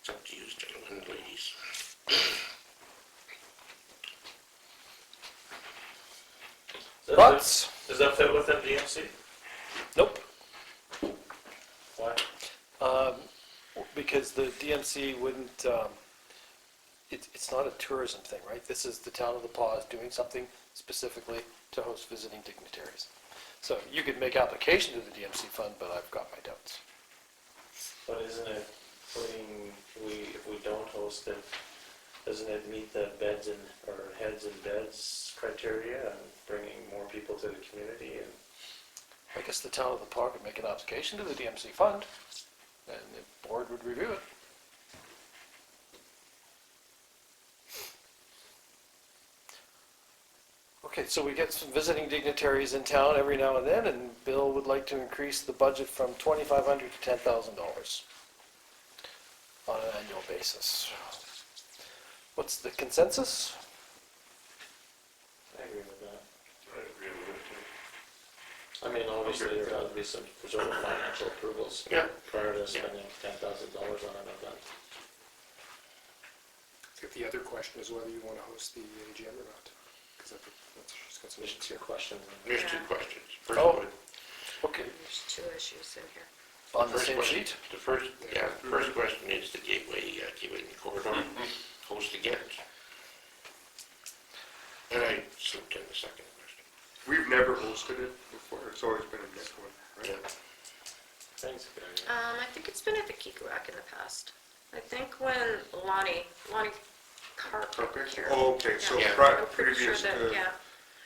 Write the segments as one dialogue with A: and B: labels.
A: It's up to you, gentlemen and ladies.
B: Is that
C: Thoughts?
B: fit- Is that fit within DMC?
C: Uh, Nope.
B: Why?
C: Um, because the DMC wouldn't, um, it, it's not a tourism thing, right? This is the town of La Paz doing something specifically to host visiting dignitaries. So you could make application to the DMC fund, but I've got my doubts.
B: But isn't it putting, if we, if we don't host it, doesn't it meet the beds and, or heads and beds criteria and bringing more people to the community and?
C: I guess the town of La Paz could make an application to the DMC fund, and the board would review it. Okay, so we get some visiting dignitaries in town every now and then, and Bill would like to increase the budget from twenty-five hundred to ten thousand dollars on an annual basis. What's the consensus?
B: I agree with that.
A: I agree with you.
B: I mean, obviously, there ought to be some sort of financial approvals
A: Yeah.
B: prior to spending ten thousand dollars on an event.
D: I think the other question is whether you want to host the AGM or not, because I think that's, she's got some
B: There's
D: issues
B: two
D: here.
B: questions.
A: There's two
E: Yeah.
A: questions. First
C: Oh.
A: one,
C: Okay,
E: There's two issues in here.
C: on the
A: first
C: same
A: question-
C: sheet?
A: The first, yeah,
F: Mm-hmm.
A: the first question is the gateway, uh, gateway and corridor,
F: Mm-hmm.
A: host again. And I slipped in the second question.
D: We've never hosted it before, it's always been a Nick one, right?
A: Yeah.
B: Thanks, Gary.
E: Um, I think it's been at the Geek Rock in the past. I think when Lonnie, Lonnie Carp
D: Okay.
E: here.
D: Oh, okay, so
A: Yeah.
D: pri-
E: I'm pretty sure
D: previous
E: that, yeah,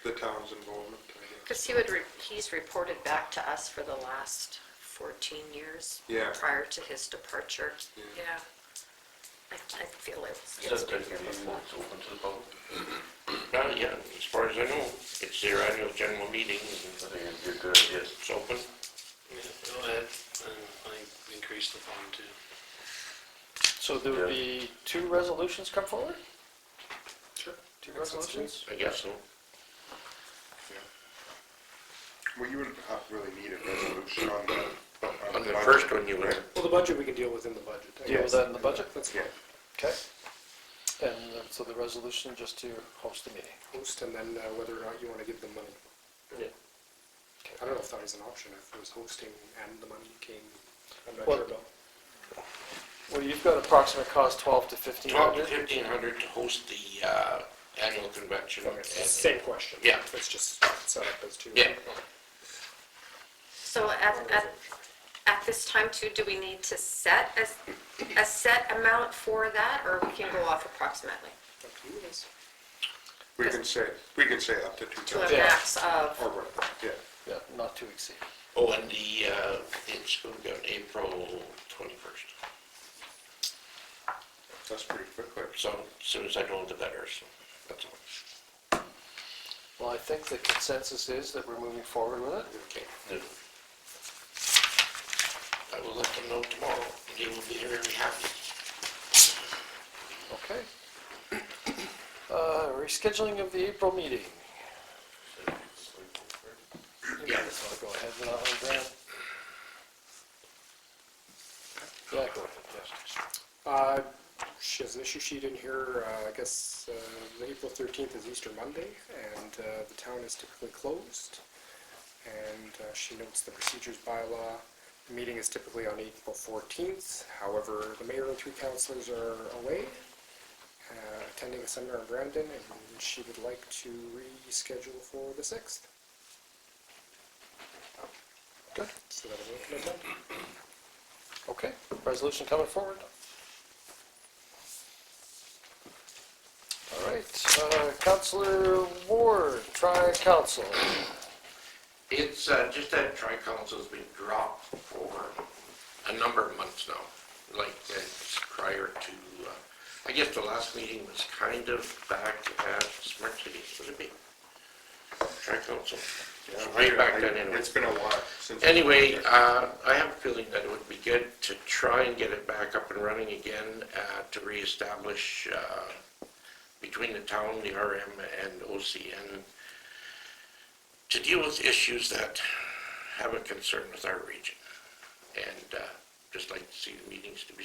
D: to the town's involvement, I guess.
E: because he would, re- he's reported back to us for the last 14 years.
D: Yeah.
E: Prior to his departure.
D: Yeah.
E: Yeah. I, I feel it's,
F: It's
E: it's
F: just
E: been
F: been
E: here before.
F: it's open to the public,
A: Well, yeah, as far as I know, it's their annual general meeting,
F: I
A: and
F: think it'd be a good idea.
A: it's open.
G: Yeah, go ahead, and I think increase the fund too.
C: So there would be two resolutions come forward?
D: Sure.
C: Two resolutions?
A: I guess so.
H: Well, you wouldn't have really need a resolution on the,
A: On the first one, you were,
D: Well, the budget, we can deal with in the budget. I
C: Deal with
D: guess.
C: that in the budget?
D: Let's
H: Yeah,
C: Okay. And uh, so the resolution just to host the meeting.
D: host, and then uh, whether or not you want to give them money.
B: Yeah.
D: I don't know if that is an option, if it was hosting and the money came, I'm not
C: Well-
D: sure about.
C: Well, you've got approximate cost twelve to fifteen
A: twelve to
C: hundred.
A: fifteen hundred to host the, uh, annual convention.
D: Okay, so it's the
A: and-
D: Same question.
A: Yeah.
D: It's just set up as two.
A: Yeah,
E: So at, at, at this time too, do we need to set a, a set amount for that, or we can go off approximately?
D: Up to you guys.
H: we can say, we can say up to two
E: To a
H: thousand,
C: Yeah.
E: max of?
H: or whatever, yeah.
C: Yeah, not to exceed.
A: oh, and the, uh, it's going to be on April twenty-first,
H: That's pretty quick.
A: so as soon as I know the better, so, that's all.
C: Well, I think the consensus is that we're moving forward with it.
A: Okay. I will let them know tomorrow, and they will be very happy.
C: Okay. Uh, rescheduling of the April meeting. You guys want to go ahead with that one, Brad? Yeah, go ahead, yes.
D: Uh, She has an issue sheet in here, uh, I guess, uh, the April 13th is Easter Monday, and uh, the town is typically closed. And uh, she notes the procedures bylaw, the meeting is typically on April 14th, however, the mayor and three councilors are away, uh, attending a seminar in Brandon, and she would like to reschedule for the 6th.
C: Good,
D: So that'll work, no problem.
C: okay. Resolution coming forward. All right, uh, Counselor Ward, tri-council.
A: It's, uh, just that tri-council's been dropped for a number of months now, like, uh, prior to, uh, I guess the last meeting was kind of back at Smart City, would it be? Tri-council, way back then anyway.
H: It's been a while since.
A: Anyway, uh, I have a feeling that it would be good to try and get it back up and running again, uh, to reestablish, uh, between the town, the RM and OCN, to deal with issues that have a concern with our region. And, uh, just like to see the meetings to be